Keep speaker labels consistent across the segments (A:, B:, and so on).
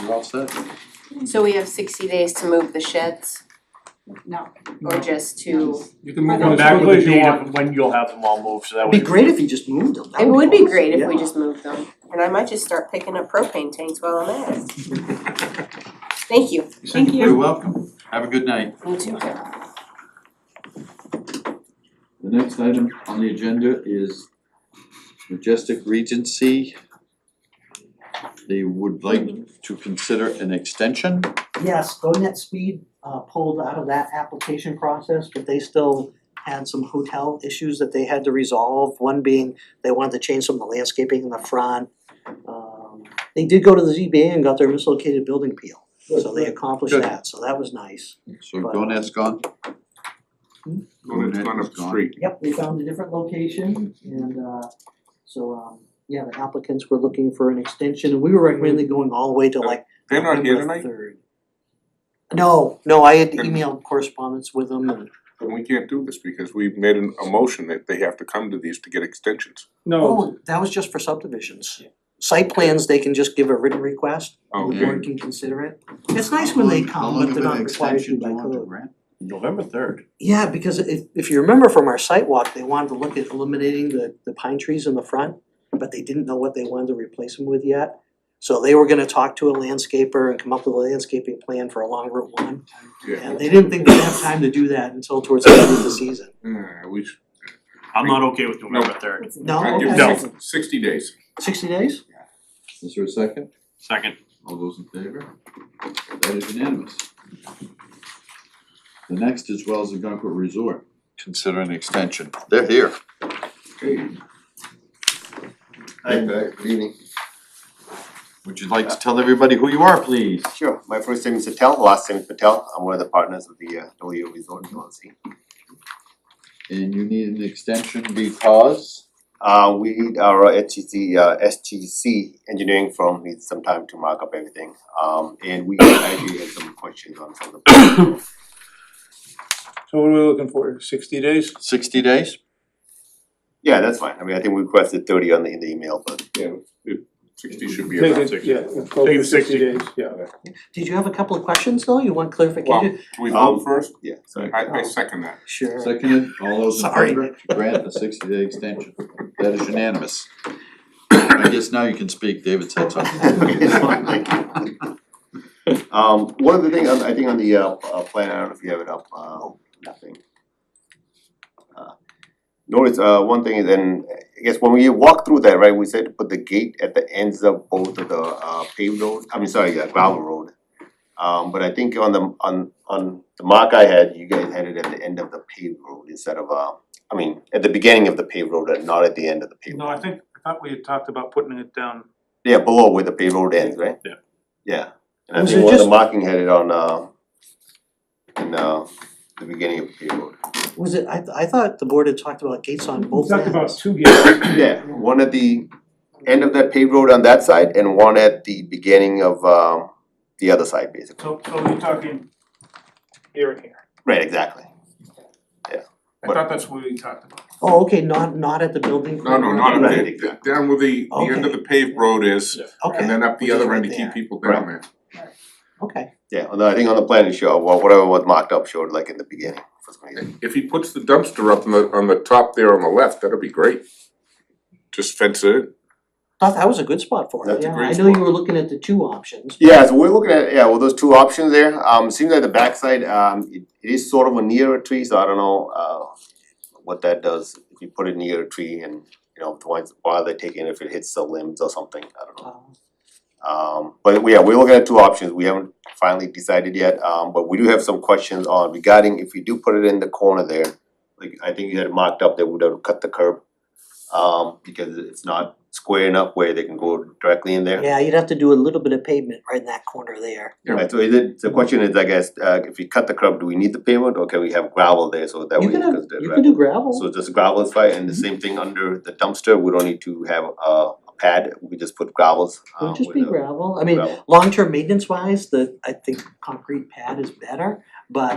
A: You're all set.
B: So we have sixty days to move the sheds
C: No.
B: or just to,
D: You can
C: I
D: move
C: don't-
D: them back
E: Back
D: with the
E: date
D: date
E: of when you'll have them all moved, so that
F: It'd be
E: way.
F: great if you just moved them.
B: it
F: That'd
B: would be
F: awesome.
B: great if we
F: Yeah.
B: just moved them. And I might just start picking up propane tanks while I'm at it. Thank you.
C: Thank you.
A: You're welcome. Have a good night.
B: You too.
A: The next item on the agenda is Majestic Regency. They would like to consider an extension.
F: Yes, GoNet Speed uh pulled out of that application process, but they still had some hotel issues that they had to resolve. One being they wanted to change some of the landscaping in the front. Um they did go to the ZBA and got their mislocated building appeal, so they accomplished
A: Good.
F: that, so that was nice.
A: So Gonad's gone.
D: Going up the street.
F: Yep, they found a different location and uh so um yeah, the applicants were looking for an extension and we were recommending going all the way to like
D: They're not here
F: November
D: tonight?
F: third. No, no, I had
D: Then-
F: emailed correspondence with them and
D: And we can't do this because we've made an, a motion that they have to come to these to get extensions.
E: No,
F: Oh, that was just for subdivisions. Site plans, they can just give a written request, and the
D: Oh, Okay.
F: board can consider it. It's nice when they come, but they're not required to by
A: How long of an extension do you want to
F: code.
A: grant?
E: November third.
F: Yeah, because if if you remember from our site walk, they wanted to look at eliminating the the pine trees in the front, but they didn't know what they wanted to replace them with yet. So they were gonna talk to a landscaper and come up with a landscaping plan for along Route one.
D: Yeah.
F: And they didn't think they'd have time to do that until towards the end of the season.
D: Uh, we should.
E: I'm not okay with November third.
F: No,
D: I'd give
F: okay.
E: No.
D: six- Sixty days.
F: Sixty days?
A: Is there a second?
E: Second.
A: All those in favor? That is unanimous. The next is Wells and Gunkel Resort. Consider an extension. They're here.
D: Okay.
G: Hi, uh, good evening.
A: Would you like to tell everybody who you are, please?
G: Sure, my first name is Patel, last name is Patel. I'm one of the partners of the uh, Dolio Resort LLC.
A: And you need an extension because?
G: Uh, we, our HGC, uh, SGC engineering firm needs some time to mark up everything. Um, and we actually had some questions on some of the.
E: So what are we looking for, sixty days?
A: Sixty days?
G: Yeah, that's fine. I mean, I think we requested thirty on the, in the email, but
D: Sixty should be about sixty.
E: Take it sixty days, yeah.
F: Did you have a couple of questions though? You want clarification?
D: Well, can we vote
G: Um,
D: first?
G: yeah, sorry.
D: I, I second that.
F: Sure.
A: Seconded, all those in
F: Sorry.
A: favor, to grant the sixty day extension, that is unanimous. I guess now you can speak, David said something.
G: It's fine, thank you. Um, one of the things, I think on the uh, uh, plan, I don't know if you have it up, uh, nothing. Uh, Notice, uh, one thing is, and I guess when we walked through that, right, we said to put the gate at the ends of both of the uh paved roads, I mean, sorry, uh, gravel road. Um, but I think on the, on, on the mark I had, you guys had it at the end of the paved road instead of, uh, I mean, at the beginning of the paved road and not at the end of the paved road.
H: No, I think, I thought we had talked about putting it down,
G: Yeah, below where the paved road ends, right?
E: Yeah.
G: Yeah, and I
F: Was
G: think
F: it
G: one of the
F: just-
G: marking had it on uh in uh the beginning of the paved road.
F: Was it, I I thought the board had talked about gates on
H: we
F: both
H: talked
F: ends.
H: about two gates,
G: Yeah, one at the end of that paved road on that side and one at the beginning of um the other side basically.
H: so, so we're talking here and here.
G: Right, exactly.
H: I thought that's what we talked about.
F: Oh, okay, not not at the building.
D: No, no, not
G: Right,
D: at the,
G: exactly.
D: down where the, the end of the paved road is, and
F: Okay,
D: then up the
F: Which is
D: other
F: right
D: end to
F: there.
D: keep people down there.
F: okay.
G: Yeah, although I think on the plan it showed, well, whatever was marked up showed like in the beginning for some reason.
D: If he puts the dumpster up on the, on the top there on the left, that'll be great. Just fence it in.
F: Thought that was a good spot for it,
G: That's a
F: yeah. I
D: great
F: know you
D: spot.
F: were looking at the two options.
G: Yeah, so we're looking at, yeah, well, those two options there, um, seems like the backside, um, it it is sort of a near a tree, so I don't know, uh, what that does, if you put it near a tree and, you know, once, while they're taking, it, if it hits the limbs or something, I don't know.
F: Uh,
G: Um, but we- yeah, we're looking at two options, we haven't finally decided yet, um, but we do have some questions on regarding if you do put it in the corner there. Like, I think you had marked up that we don't cut the curb, um, because it's not square enough where they can go directly in there.
F: Yeah, you'd have to do a little bit of pavement right in that corner there.
D: Yeah.
G: Right, so is it, the question is, I guess, uh if we cut the curb, do we need the pavement or can we have gravel there so that
F: You
G: we
F: could
G: can
F: have,
G: consider gravel?
F: you could do gravel. Mm-hmm.
G: So just gravel is fine and the same thing under the dumpster, we don't need to have a a pad, we just put gravels
F: It
G: um
D: Oh,
F: would just
G: with
F: be
G: a
F: gravel. I mean,
G: gravel.
F: long-term maintenance wise, the, I think concrete pad is better, but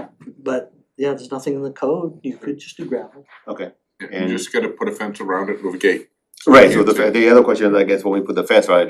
F: but yeah, there's nothing in the code. You could just do gravel.
G: Okay,
D: You just gotta put a fence around it with a gate.
G: right, so the the other question is, I guess, when we put the fence around it,